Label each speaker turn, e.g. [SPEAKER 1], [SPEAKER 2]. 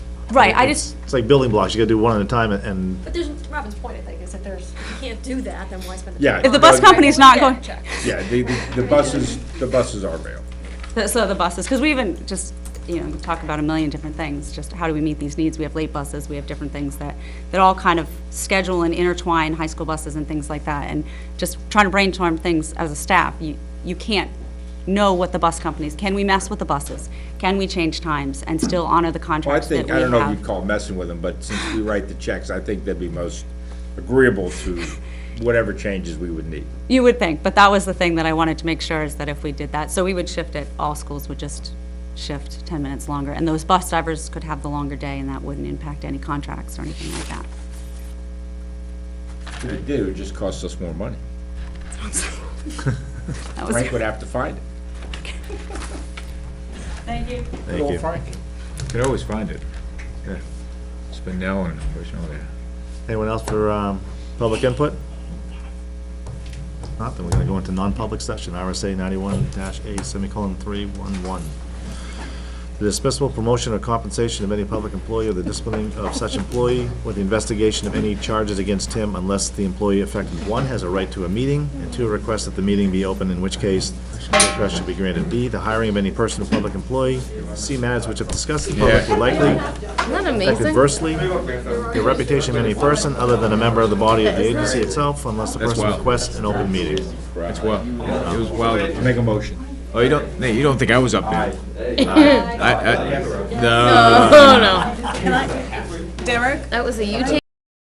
[SPEAKER 1] Right, I just,
[SPEAKER 2] It's like building blocks, you gotta do one at a time and- and
[SPEAKER 3] But there's, Robin's point, I think, is that there's, if you can't do that, then why spend the.
[SPEAKER 4] Yeah.
[SPEAKER 3] time
[SPEAKER 4] If the
[SPEAKER 3] on
[SPEAKER 4] bus
[SPEAKER 3] it?
[SPEAKER 1] company's not
[SPEAKER 3] Yeah,
[SPEAKER 1] going-
[SPEAKER 3] check.
[SPEAKER 4] Yeah, the, the- the buses, the buses are rail.
[SPEAKER 1] the- so the buses, because we even just, you know, talk about a million different things, just how do we meet these needs? We have late buses, we have different things that, that all kind of schedule and intertwine high school buses and things like that. And just trying to brainstorm things as a staff, you, you can't know what the bus companies, can we mess with the buses? Can we change times and still honor the
[SPEAKER 4] Well, I
[SPEAKER 1] contracts that
[SPEAKER 4] think,
[SPEAKER 1] we
[SPEAKER 4] I
[SPEAKER 1] have?
[SPEAKER 4] don't know if you'd call messing with them, but since we write the checks, I think they'd be most agreeable to whatever changes we would need.
[SPEAKER 1] You would think, but that was the thing that I wanted to make sure is that if we did that, so we would shift it, all schools would just shift 10 minutes longer, and those bus drivers could have the longer day, and that wouldn't impact any contracts or anything like that.
[SPEAKER 4] If we did, it would just cost us more money.
[SPEAKER 1] That was-
[SPEAKER 4] Frank would have to find it.
[SPEAKER 2] thank you.
[SPEAKER 4] Could always find it. Spindell and, where's, oh, yeah.
[SPEAKER 2] Anyone else for um, public input? If Not, then we're gonna go into non-public session, RSA ninety-one dash A semicolon three one one. The dismissal, promotion, or compensation of any public employee or the disciplining of such employee or the investigation of any charges against him unless the employee affected, one, has a right to a meeting, and two, requests that the meeting be open, in which case the request should be granted. B, the hiring of any person or public employee. C, matters which if discussed in public would likely
[SPEAKER 5] Isn't that
[SPEAKER 2] affect
[SPEAKER 5] amazing?
[SPEAKER 2] adversely the reputation of any person other than a member of the body of the agency itself unless the person
[SPEAKER 6] wild.
[SPEAKER 2] requests an open meeting.
[SPEAKER 6] It's well, it was well.
[SPEAKER 4] Make a motion.
[SPEAKER 6] Oh, you don't, Nate, you don't think I was up there? I, I, no.
[SPEAKER 5] Oh, no. Derek? That was a you